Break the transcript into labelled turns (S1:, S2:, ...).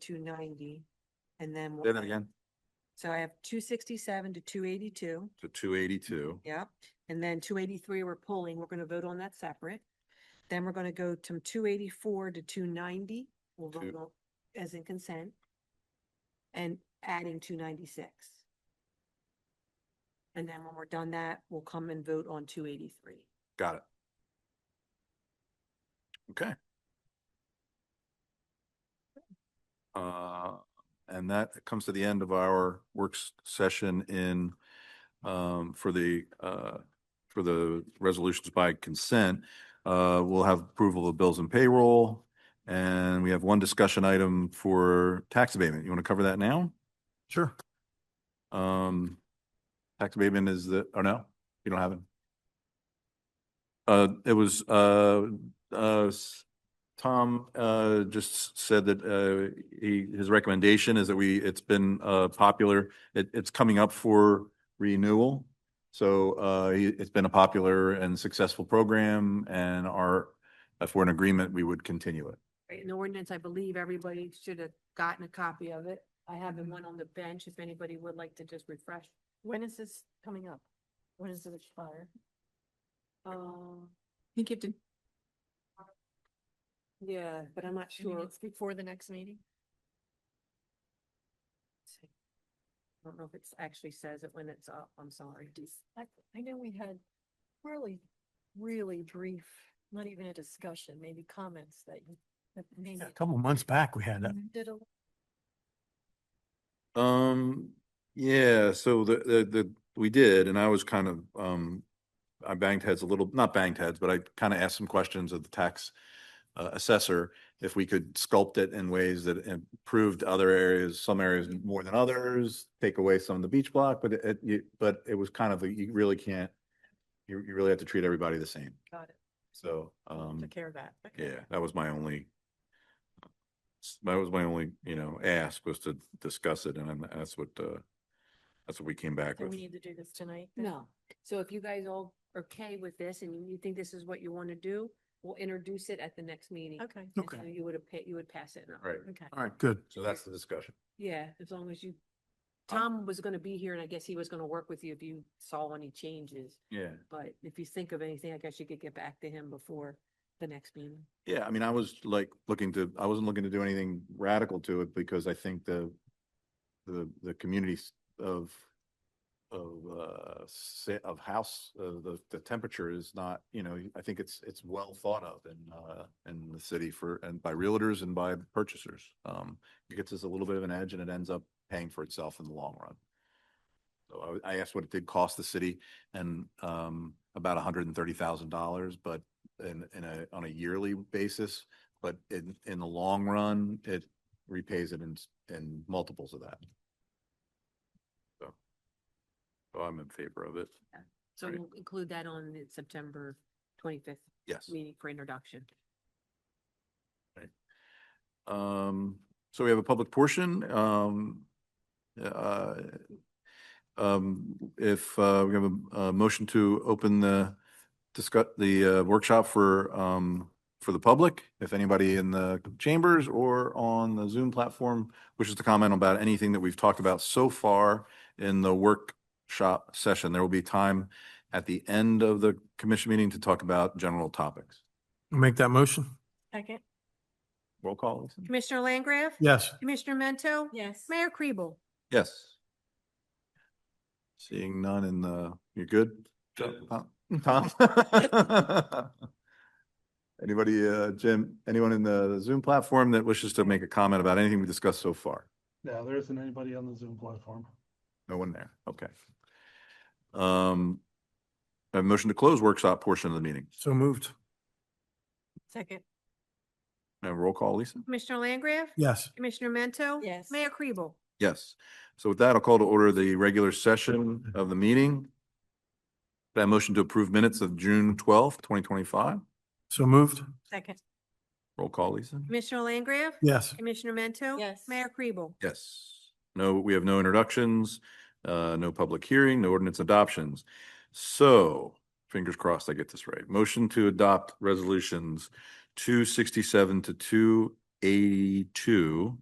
S1: two ninety, and then.
S2: Then again,
S1: So I have two sixty-seven to two eighty-two,
S2: to two eighty-two.
S1: yep, and then two eighty-three we're pulling, we're gonna vote on that separate. Then we're gonna go to two eighty-four to two ninety, we'll vote
S2: Two-
S1: on as in consent. And adding two ninety-six. And then when we're done that, we'll come and vote on two eighty-three.
S2: Got it. Okay. Uh, and that comes to the end of our works session in, um, for the, uh, for the resolutions by consent. Uh, we'll have approval of bills and payroll. And we have one discussion item for tax abatement. You want to cover that now? Sure. Um, tax abatement is the, oh no, you don't have it? Uh, it was, uh, uh, s- Tom, uh, just s- said that, uh, he, his recommendation is that we, it's been, uh, popular. It, it's coming up for renewal. So, uh, he- it's been a popular and successful program and our, if we're in agreement, we would continue it.
S1: Right, in the ordinance, I believe everybody should have gotten a copy of it. I have the one on the bench, if anybody would like to just refresh. When is this coming up? When does it expire? Um,
S3: I think you have to,
S1: yeah, but I'm not
S3: I mean,
S1: sure.
S3: it's before the next meeting.
S1: I don't know if it's actually says it when it's up, I'm sorry.
S4: I, I know we had really, really brief, not even a discussion, maybe comments that you, that maybe.
S5: Yeah, A couple months back, we had that.
S4: Did a,
S2: Um, yeah, so the, the, the, we did, and I was kind of, um, I banged heads a little, not banged heads, but I kind of asked some questions of the tax uh, assessor if we could sculpt it in ways that improved other areas, some areas more than others, take away some of the beach block, but it- it, you, but it was kind of, a- you really can't, you, you really have to treat everybody the same.
S4: got it,
S2: So, um.
S4: took care of that. okay.
S2: Yeah, that was my only, s- that was my only, you know, ask was to discuss it and I'm- that's what, uh, that's what we came back
S4: So
S2: with.
S4: we need to do this tonight? then?
S1: No, so if you guys all are okay with this and you think this is what you want to do, we'll introduce it at the next meeting.
S4: Okay,
S1: And
S5: Okay.
S1: so You would have, you would pass it. and I'll-
S2: Right.
S4: okay.
S5: All right, good.
S2: So that's the discussion.
S1: Yeah, as long as you, Tom was gonna be here and I guess he was gonna work with you if you saw any changes.
S2: Yeah.
S1: But if you think of anything, I guess you could get back to him before the next meeting.
S2: Yeah, I mean, I was like looking to, I wasn't looking to do anything radical to it because I think the, the, the communities of, of, uh, sa- of house, uh, the, the temperature is not, you know, I think it's, it's well thought of in, uh, in the city for, and by realtors and by purchasers. Um, it gets us a little bit of an edge and it ends up paying for itself in the long run. So I, w- I asked what it did cost the city and, um, about hundred and thirty thousand dollars, but in, in a, on a yearly basis, but in, in the long run, it repays it in, s- in multiples of that. So, so I'm in favor of it.
S1: So
S2: Right.
S1: we'll include that on the September twenty-fifth
S2: Yes.
S1: meeting for introduction.
S2: Um, so we have a public portion, um, uh, um, if, uh, we have a, a motion to open the discuss, the, uh, workshop for, um, for the public, if anybody in the chambers or on the Zoom platform wishes to comment about anything that we've talked about so far in the workshop session, there will be time at the end of the commission meeting to talk about general topics.
S5: Make that motion?
S4: Second,
S2: Roll call, Lisa?
S1: Commissioner Langgraf?
S5: Yes.
S1: Commissioner Mento?
S4: yes.
S1: Mayor Kribel?
S2: Yes. Seeing none in the, you're good? Tom? Tom? Anybody, uh, Jim, anyone in the Zoom platform that wishes to make a comment about anything we discussed so far?
S6: No, there isn't anybody on the Zoom platform.
S2: No one there, okay. Um, a motion to close workshop portion of the meeting.
S5: So moved.
S4: Second,
S2: Now roll call, Lisa?
S1: Commissioner Langgraf?
S5: Yes.
S1: Commissioner Mento?
S4: yes.
S1: Kribel?
S2: Yes. So with that, I'll call to order the regular session of the meeting. That motion to approve minutes of June twelfth, twenty twenty-five.
S5: So moved.
S4: Second,
S2: Roll call, Lisa?
S1: Commissioner Langgraf?
S5: Yes.
S1: Commissioner Mento?
S4: yes.
S1: Kribel?
S2: Yes. No, we have no introductions, uh, no public hearing, no ordinance adoptions. So fingers crossed I get this right. Motion to adopt resolutions two sixty-seven to two eighty-two